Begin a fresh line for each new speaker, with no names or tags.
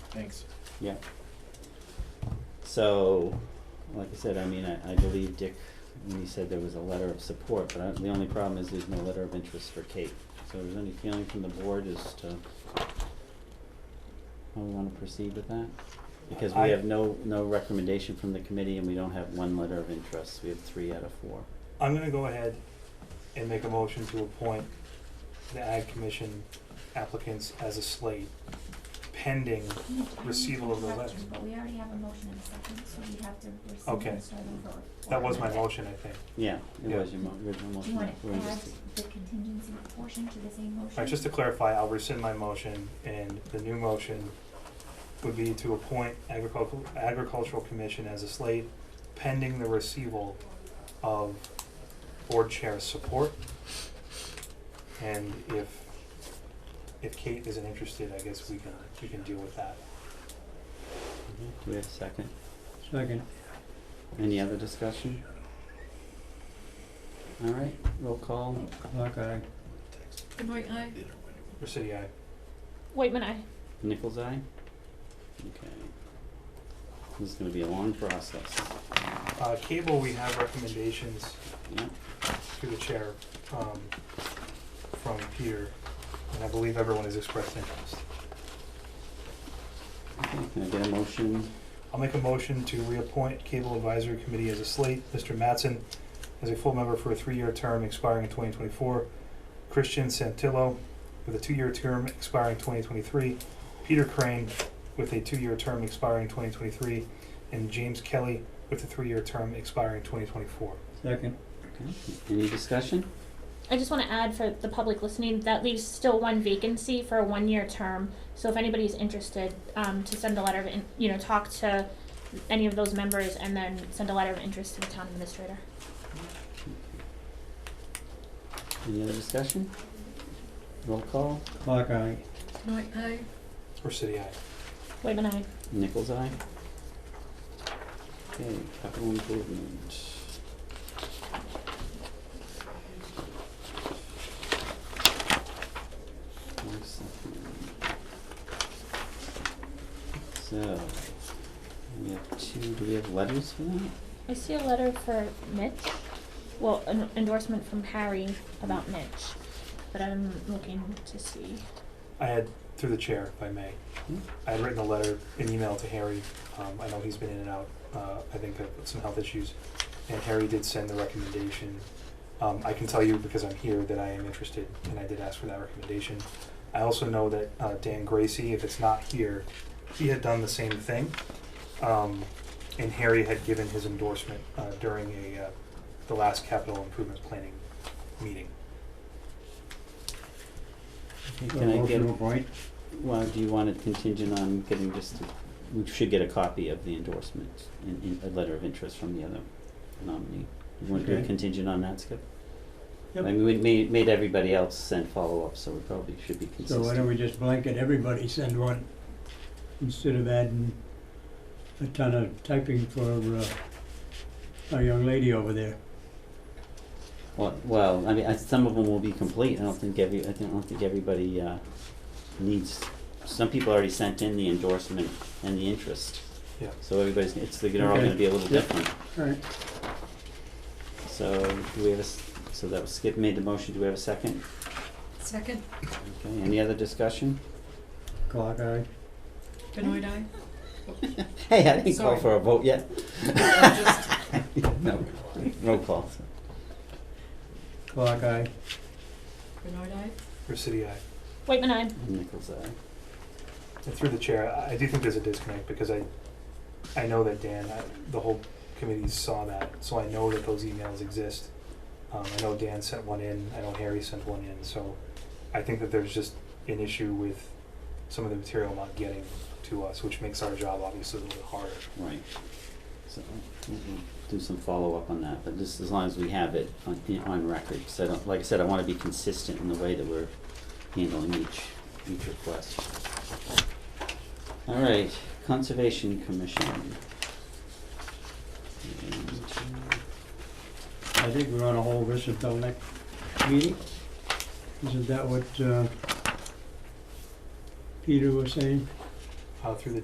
Thanks.
Yeah. So, like I said, I mean, I, I believe Dick, when he said there was a letter of support, but I, the only problem is there's no letter of interest for Kate. So is there any feeling from the board as to how we wanna proceed with that? Because we
I-
have no, no recommendation from the committee and we don't have one letter of interest, we have three out of four.
I'm gonna go ahead and make a motion to appoint the Ag Commission applicants as a slate pending,
We- we
Receival of the
have to,
letter.
But we already have a motion and a second, so we have to receive
Okay.
and start over.
that was my motion, I think.
Yeah, it
Yeah.
was your mo- original
Do you
motion,
wanna
we're in
add
dis-
the contingency portion to the same motion?
Alright, just to clarify, I'll rescind my motion and the new motion would be to appoint agricultural, agricultural commission as a slate pending the receival of board chair support. And if, if Kate isn't interested, I guess we can, we can deal with that.
Mhm. Do we have a second?
Second.
Any other discussion? Alright, roll call,
Clock eye.
Benoit Eye,
Rescind, aye.
Whitman Eye.
Nichols eye? Okay. This is gonna be a long process.
Uh, cable, we have recommendations
Yeah,
through the chair, um, from Peter, and I believe everyone has expressed interest.
okay, can I get a motion?
I'll make a motion to reappoint Cable Advisory Committee as a slate, Mr. Matson as a full member for a three-year term expiring in twenty twenty-four, Christian Santillo with a two-year term expiring twenty twenty-three, Peter Crane with a two-year term expiring twenty twenty-three, and James Kelly with a three-year term expiring twenty twenty-four.
Second.
Okay, any discussion?
I just want to add for the public listening, that leaves still one vacancy for a one-year term. So if anybody's interested, um, to send a letter of, in- you know, talk to any of those members and then send a letter of interest to the town administrator.
Any other discussion? Roll call,
Clock eye.
Benoit Eye.
Or City Eye.
Whitman Eye.
Nichols eye? Okay, capital improvement. One second. So, we have two, do we have letters for that?
I see a letter for Mitch, well, an endorsement from Harry about Mitch, but I'm looking to see.
I had, through the chair, if I may,
Hmm?
I had written a letter, an email to Harry. Um, I know he's been in and out, uh, I think of some health issues. And Harry did send the recommendation. Um, I can tell you because I'm here that I am interested and I did ask for that recommendation. I also know that, uh, Dan Gracie, if it's not here, he had done the same thing. Um, and Harry had given his endorsement, uh, during a, uh, the last capital improvement planning meeting.
Okay, Can I get,
Uh, Motion to appoint.
well, do you want it contingent on getting just, a- we should get a copy of the endorsement and, and a letter of interest from the other nominee. You want to do a
Okay.
contingent on that, Skip?
Yep.
I mean, we made, made everybody else send follow-up, so we probably should be
So
consistent.
why don't we just blanket everybody send one, instead of adding a ton of typing for, uh, our young lady over there.
Well, well, I mean, I, some of them will be complete, I don't think every, I think, I don't think everybody, uh, needs, some people already sent in the endorsement and the interest.
Yeah.
So everybody's, it's, they're all gonna
Okay.
be a
Yep.
little different.
Alright.
So, do we have a, s- so that was Skip made the motion, do we have a second?
Second,
Okay, any other discussion?
Clock eye.
Benoit Eye.
Hey, I didn't call
Sorry.
for a vote yet.
Just-
No, no call.
Clock eye.
Benoit Eye.
Or City Eye.
Whitman Eye.
Nichols, aye.
And through the chair, I I do think there's a disconnect because I, I know that Dan, I, the whole committee saw that, so I know that those emails exist. Um, I know Dan sent one in, I know Harry sent one in, so I think that there's just an issue with some of the material not getting to us, which makes our job obviously a little bit harder.
Right. So we'll do some follow-up on that, but just as long as we have it on, you know, on record. So I don't, like I said, I wanna be consistent in the way that we're handling each, each request. All right, Conservation Commission. And-
I think we wanna hold this until next meeting. Isn't that what, uh, Peter was saying?
Uh, through the